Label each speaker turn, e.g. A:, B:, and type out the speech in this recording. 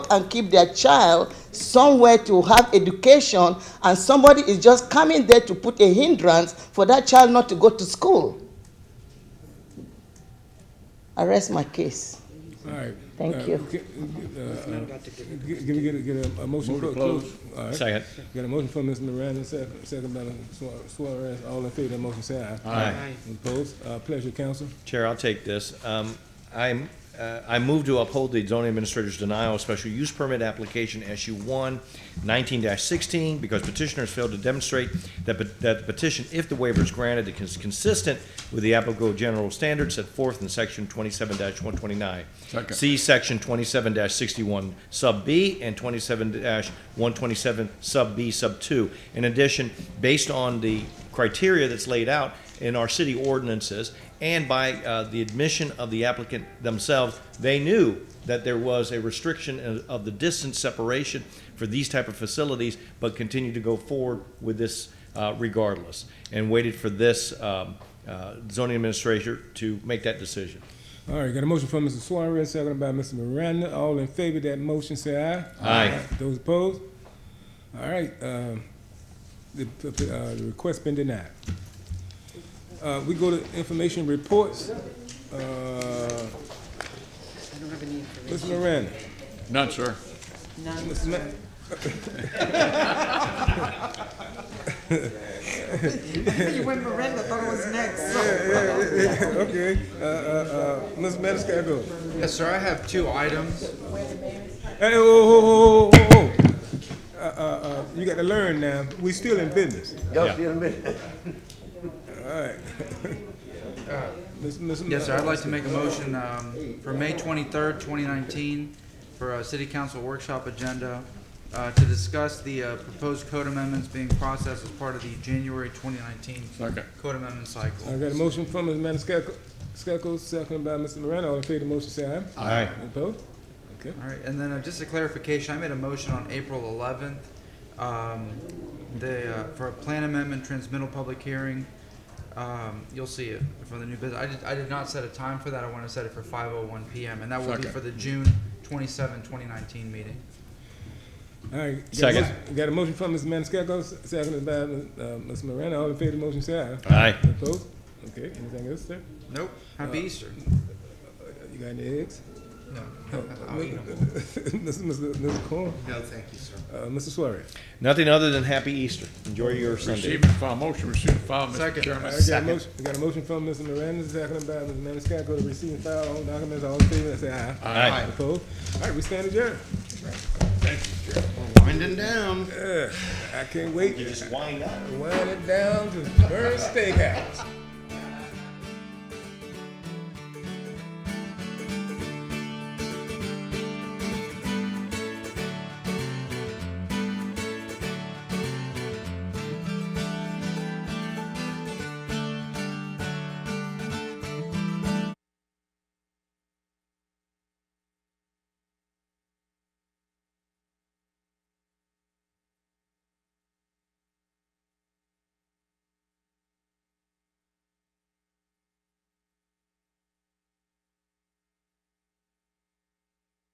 A: and keep their child somewhere to have education and somebody is just coming there to put a hindrance for that child not to go to school. I rest my case.
B: All right.
A: Thank
B: Uh,
A: you.
B: g- uh, g- Give me, get a, get a- a motion. for All right.
C: Second.
B: Got a motion from Mr. Miranda, second, second by Mr. Suar- Suarez. All in favor of that motion, say aye.
C: Aye.
B: Opposed? Uh, pleasure, council.
C: Chair, I'll take this. Um, I'm, uh, I move to uphold the zoning administrator's denial of special use permit application SU one nineteen sixteen because petitioners failed to demonstrate that, pe- that the petition, if the waiver is granted, it is consistent with the applicable general standards set forth in section twenty-seven one twenty-nine.
D: Second.
C: See section twenty-seven sixty-one sub B and twenty-seven one twenty-seven sub B sub two. In addition, based on the criteria that's laid out in our city ordinances and by uh, the admission of the applicant themselves, they knew that there was a restriction of- of the distance separation for these type of facilities, but continued to go forward with this uh, regardless, and waited for this um, uh, zoning administrator to make that decision.
B: All right, got a motion from Mr. Suarez, second by Mr. Miranda. All in favor of that motion, say aye.
C: Aye.
B: Those opposed? All right, um, the, uh, the request been denied. Uh, we go to information reports. Uh,
E: I don't have any information.
B: Mr. Miranda,
D: None, sir.
E: None.
B: Mr. Ma-
E: You went Miranda, thought it was next.
B: Okay, uh, uh, uh, Ms. Maniscalco.
F: Yes, sir, I have two items.
B: Hey, oh, whoa, whoa, whoa, whoa, whoa. Uh, uh, uh, you got to learn now. We still in business.
G: Y'all see in a minute.
B: Ms. Ms.
F: Yes, sir, I'd like to make a motion um, for May 23rd, 2019, for a city council workshop agenda uh, to discuss the uh, proposed code amendments being processed as part of the January 2019
D: Second.
F: code amendment cycle.
B: I got a motion from Ms. Maniscalco, Skelko, seconded by Mr. Miranda. All in favor of the motion, say aye.
C: Aye.
B: Opposed? Okay.
F: All right, and then uh, just a clarification, I made a motion on April 11th, um, the, uh, for a plan amendment transmittal public hearing. Um, You'll see it for the new business. I did, I did not set a time for that, I want to set it for 5:01 PM, and that will be
D: Second.
F: for the June 27, 2019 meeting.
B: All right. Got a
C: Second.
B: motion- Got a motion from Ms. Maniscalco, seconded by uh, Ms. Miranda. All in favor of the motion, say aye.
C: Aye.
B: Opposed? Okay, anything else, sir?
F: Nope, happy Easter.
B: Uh, You got any eggs?
F: No, I'll eat 'em.
B: Mr. Mr. Mr. Corn,
F: No, thank you, sir.
B: uh, Mr. Suarez.
C: Nothing other than happy Easter. Enjoy your Sunday.
D: Receive and file motion, receive and file, Mr.
F: Second.
D: Chairman.
B: I got a motion, I got a motion from Mr. Miranda, seconded by Ms. Maniscalco to receive and file all documents, all in favor, say aye.
C: Aye.
B: Opposed? All right, we stand adjourned.
G: Winding down.
B: I can't wait
C: Just wind up.
B: to wind it down to Burns Steakhouse.